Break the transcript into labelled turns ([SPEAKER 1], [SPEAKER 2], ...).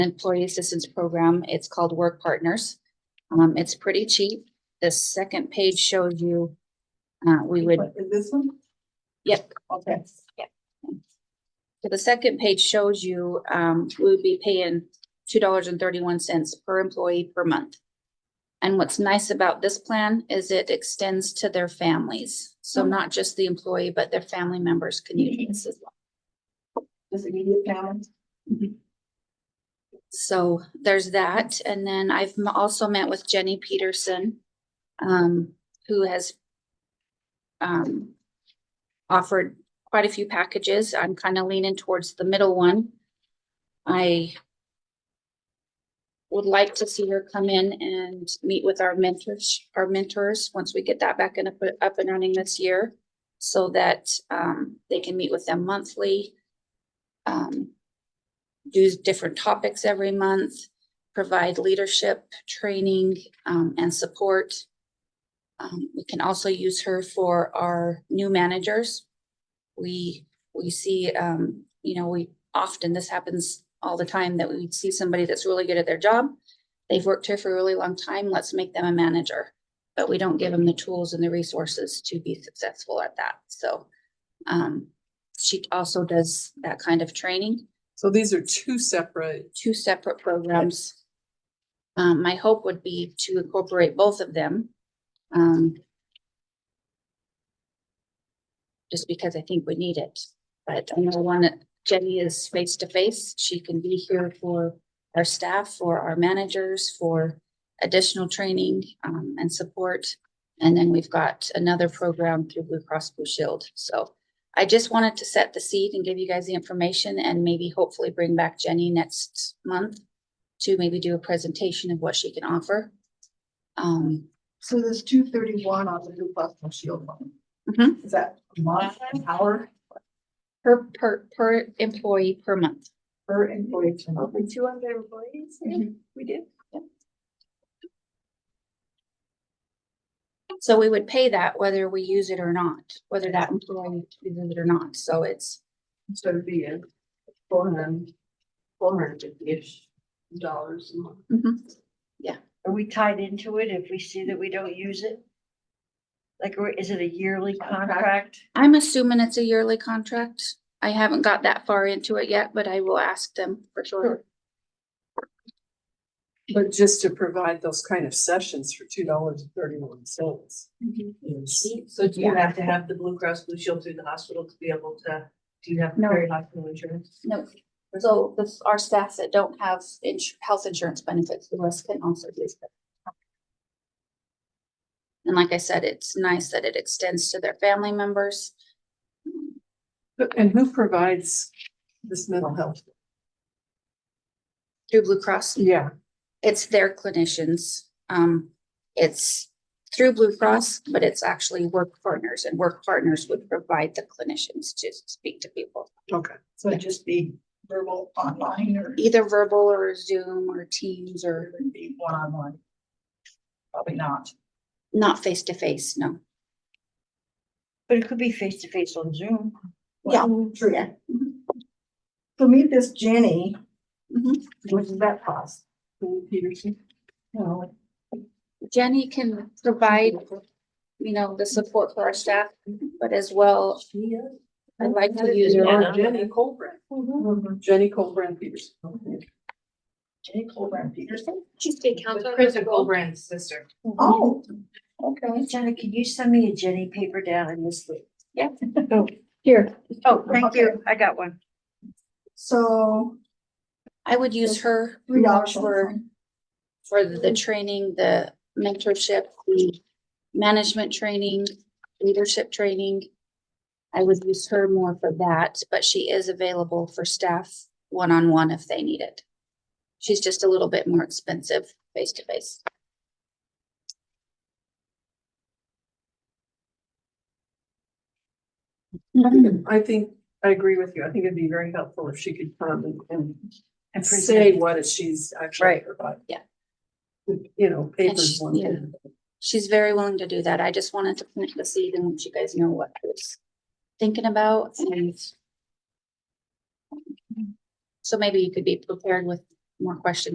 [SPEAKER 1] employee assistance program. It's called Work Partners. Um, it's pretty cheap. The second page shows you, uh, we would,
[SPEAKER 2] Is this one?
[SPEAKER 1] Yep.
[SPEAKER 2] Okay.
[SPEAKER 1] the second page shows you, um, we would be paying two dollars and thirty-one cents per employee per month. And what's nice about this plan is it extends to their families. So not just the employee, but their family members can use this as well.
[SPEAKER 2] This immediate family.
[SPEAKER 1] So there's that. And then I've m- also met with Jenny Peterson, um, who has um, offered quite a few packages. I'm kind of leaning towards the middle one. I would like to see her come in and meet with our mentors, our mentors, once we get that back and up, up and running this year so that, um, they can meet with them monthly. Um, do different topics every month, provide leadership, training, um, and support. Um, we can also use her for our new managers. We, we see, um, you know, we often, this happens all the time, that we see somebody that's really good at their job. They've worked here for a really long time, let's make them a manager. But we don't give them the tools and the resources to be successful at that, so. Um, she also does that kind of training
[SPEAKER 2] So these are two separate.
[SPEAKER 1] two separate programs. Um, my hope would be to incorporate both of them. um, Just because I think we need it, but I know one, that Jenny is face to face. She can be here for our staff, for our managers, for additional training, um, and support. And then we've got another program through Blue Cross Blue Shield, so. I just wanted to set the seed and give you guys the information and maybe hopefully bring back Jenny next month to maybe do a presentation of what she can offer. Um,
[SPEAKER 2] So there's two thirty-one on the Blue Cross Blue Shield one.
[SPEAKER 1] Mhm.
[SPEAKER 2] Is that a month, an hour
[SPEAKER 1] per, per, per employee per month.
[SPEAKER 2] per employee? per month?
[SPEAKER 3] two hundred employees, we did.
[SPEAKER 1] So we would pay that whether we use it or not, whether that employee uses it or not. So it's,
[SPEAKER 2] Mm-hmm.
[SPEAKER 3] So it'd be a four hundred, four hundred fifty-ish dollars a month.
[SPEAKER 4] Are we tied into it if we see that we don't use it? Like, or is it a yearly contract?
[SPEAKER 1] I'm assuming it's a yearly contract. I haven't got that far into it yet, but I will ask them for sure.
[SPEAKER 2] But just to provide those kind of sessions for two dollars and thirty-one cents.
[SPEAKER 3] So do you have to have the Blue Cross Blue Shield through the hospital to be able to, do you have
[SPEAKER 1] No.
[SPEAKER 3] very hospital insurance?
[SPEAKER 1] No, so the, our staff that don't have ins- health insurance benefits, the rest can also use it. And like I said, it's nice that it extends to their family members.
[SPEAKER 2] And who provides this mental health?
[SPEAKER 1] Through Blue Cross,
[SPEAKER 2] Yeah.
[SPEAKER 1] it's their clinicians. Um, it's through Blue Cross, but it's actually work partners and work partners would provide the clinicians to speak to people.
[SPEAKER 2] Okay.
[SPEAKER 5] So it'd just be verbal online or
[SPEAKER 1] Either verbal or Zoom or Teams or
[SPEAKER 5] it'd be one on one? Probably not.
[SPEAKER 1] not face to face, no.
[SPEAKER 4] But it could be face to face on Zoom.
[SPEAKER 1] Yeah.
[SPEAKER 5] True. So meet this Jenny.
[SPEAKER 1] Mhm.
[SPEAKER 5] What does that cost?
[SPEAKER 2] Peterson.
[SPEAKER 5] No.
[SPEAKER 1] Jenny can provide, you know, the support for our staff, but as well, I'd like to use her.
[SPEAKER 3] Yeah.
[SPEAKER 2] Jenny Colbrand. Jenny Colbrand Peterson.
[SPEAKER 5] Jenny Colbrand Peterson?
[SPEAKER 3] She's state council. Kristen Goldbrand's sister.
[SPEAKER 5] Oh,
[SPEAKER 4] Okay. Jenna, can you send me a Jenny paper down in this week?
[SPEAKER 1] Here.
[SPEAKER 4] Oh,
[SPEAKER 5] thank you.
[SPEAKER 4] I got one.
[SPEAKER 5] so
[SPEAKER 1] I would use her
[SPEAKER 5] three dollars
[SPEAKER 1] for,
[SPEAKER 5] for,
[SPEAKER 1] for the training, the mentorship, the management training, leadership training. I would use her more for that, but she is available for staff one-on-one if they need it. She's just a little bit more expensive face-to-face.
[SPEAKER 2] I think, I agree with you. I think it'd be very helpful if she could come and- and,
[SPEAKER 4] And
[SPEAKER 2] say what it- she's actually
[SPEAKER 4] Right.
[SPEAKER 2] providing.
[SPEAKER 1] Yeah.
[SPEAKER 2] You know, papers
[SPEAKER 1] she-
[SPEAKER 2] one
[SPEAKER 1] yeah.
[SPEAKER 2] thing.
[SPEAKER 1] She's very willing to do that. I just wanted to plant the seed and let you guys know what I was thinking about and. So maybe you could be prepared with more questions